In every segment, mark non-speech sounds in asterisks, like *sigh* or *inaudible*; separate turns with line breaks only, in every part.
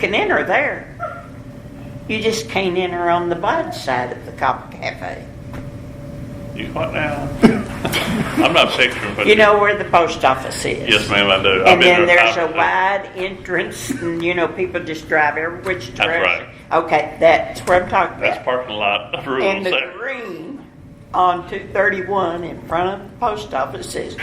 can enter there. You just can't enter on the bud side of the Copper Cafe.
You what now? *laughs* I'm not picturing, but.
You know where the post office is.
Yes, ma'am, I do. I've
And
been
then
there
there's a
time-
wide entrance, and you know, people just drive every which
That's right.
direction. Okay, that's what I'm talking about.
That's parking lot *laughs*
And
rules
the
there.
green on two thirty-one in front of the post office says,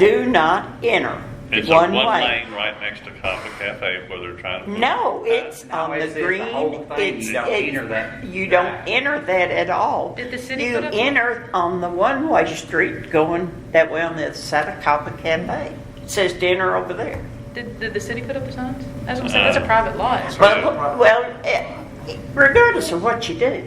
do not enter.
It's a one
one way.
lane right next to Coffee Cafe where they're trying to.
Uh,
No, it's
No,
on the
it's- it's the
green,
whole thing.
it's,
You don't enter
it's,
that.
you don't enter that at all.
Did the city
You
put up-
enter on the one-way street going that way on the other side of Copper Cafe. It says to enter over there.
Did, did the city put up the signs? That's what I'm saying, that's
Uh,
a private lot.
Right.
Well, well, eh, regardless of what you do,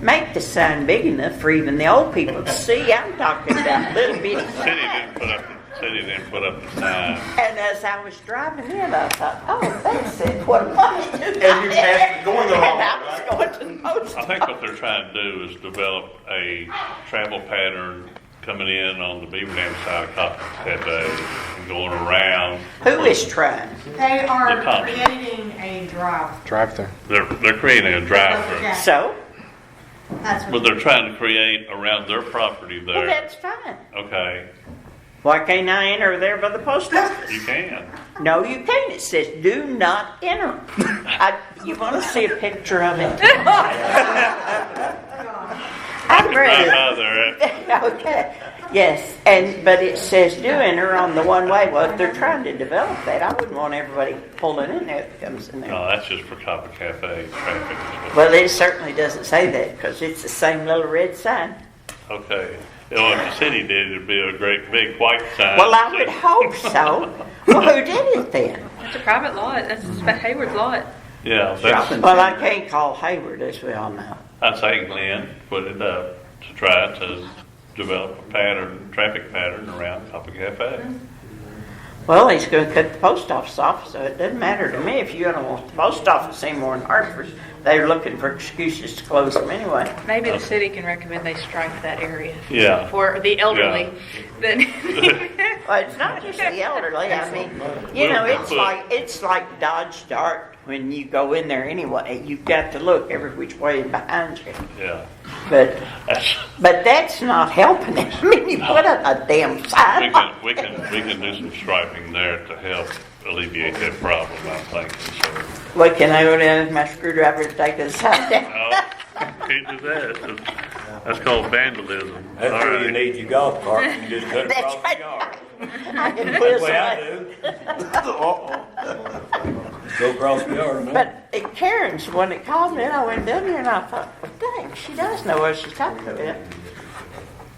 make the sign big enough for even the old people to see. I'm talking about little bitty
The City
signs.
didn't put up, the city didn't put up the sign.
And as I was driving in, I thought, oh, that's it, what a place to
And you passed- going the
And
wrong
I
way,
was going
right?
to the post
I think what they're trying to do is develop a travel pattern coming in on the Beaver Dam side of Coffee Cafe and going around.
Who is trying?
They
The
are
top.
creating a drive.
Drive-through.
They're, they're creating a drive-through,
Okay.
So,
That's
but they're trying to create around their property
well,
there.
that's fine.
Okay,
Why can't I enter there by the post *laughs* office?
you can.
No, you can't. It says, do not *laughs* enter. I, you want to see a picture of *laughs* it? I'd *laughs*
Drive
rather.
by there.
Okay, yes, and, but it says do enter on the one-way, well, if they're trying to develop that, I wouldn't want everybody pulling in there that comes in there.
No, Oh, that's just for Copper Cafe traffic. is what-
Well, it certainly doesn't say that, because it's the same little red sign.
Okay. Well, if the city did, it'd be a great big white sign.
Well, I *laughs* would hope so. Well, who did it then?
It's a private lot, that's a Hayward lot.
Yeah, that's,
Well, I can't call Hayward, as we all know.
I'd say Glenn put it up to try to develop a pattern, traffic pattern around Copper Cafe.
Mm-hmm. Well, he's gonna cut the post office off, so it doesn't matter to me if you don't want the post office anymore in Hartford. They're looking for excuses to close them anyway.
Maybe the city can recommend they strike that area.
Yeah.
For the elderly.
*laughs*
Then- *laughs*
Well, it's not just the elderly. I mean, you know, it's like it's like Dodge Dart when you go in there anyway. You've got to look every which way behind you.
Yeah.
But
That's,
but that's not helping. it. *laughs* I mean, you put up a damn
we
sign.
can, we can, we can do some striping there to help alleviate that problem, I'm thinking, so.
What can I go down with my screwdriver to take this sign down?
Oh, can't do that. That's called vandalism.
That's
All
where
right.
you need your golf cart, you just cut it
That's *laughs*
off the
right.
yard.
I can put
That's the way I
somebody-
do. *laughs* Go across the yard, man.
But uh, Karen's the one that called me, and I went down there and I thought, well, dang, she does know what she's talking about.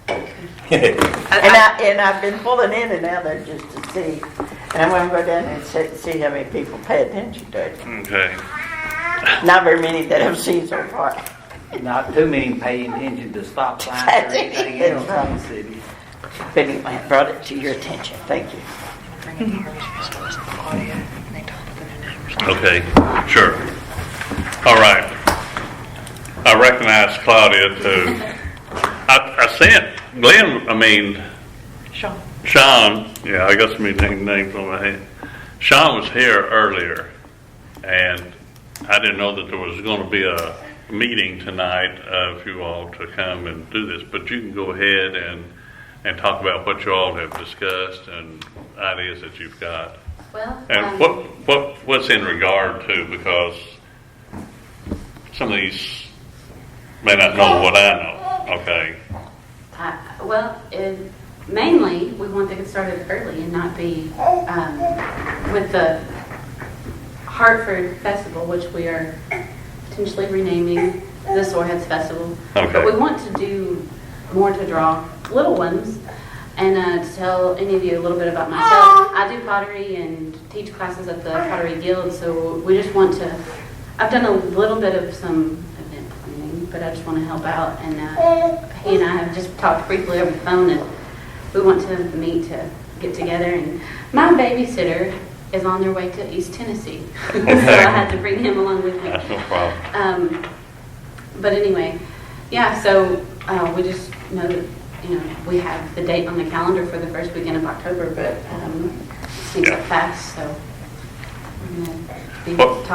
And I, and I've been pulling in and out there just to see, and I'm gonna go down there and see, see how many people pay attention to it.
Okay.
Not very many that I've seen so far.
Not too many paying attention to stop signs or
That's it.
anything else in the city.
But anyway, I brought it to your attention, thank you.
Okay, sure. All right. I recognize Claudia too. I, I sent Glenn, I mean,
Sean,
Sean, yeah, I got so many dang names on my head. Sean was here earlier and I didn't know that there was gonna be a meeting tonight of you all to come and do this, but you can go ahead and, and talk about what you all have discussed and ideas that you've got.
Well, um,
And what, what, what's in regard to, because some of these may not know what I know, okay?
I- Well, it- mainly, we want to get started early and not be um, with the Hartford Festival, which we are potentially renaming the Soreheads Festival.
Okay.
But we want to do more to draw little ones and uh, to tell any of you a little bit about myself. I do pottery and teach classes at the Pottery Guild, so we just want to, I've done a little bit of some event planning, but I just want to help out. And uh, he and I have just talked briefly over the phone, and we want to meet to get together. And my babysitter is on their way to East Tennessee, *laughs* so I had to bring him along with me.
That's no problem.
Um, but anyway, yeah, so uh, we just know that, you know, we have the date on the calendar for the first weekend of October, but um, things
Yeah.
are fast, so you know, be
Well-
talking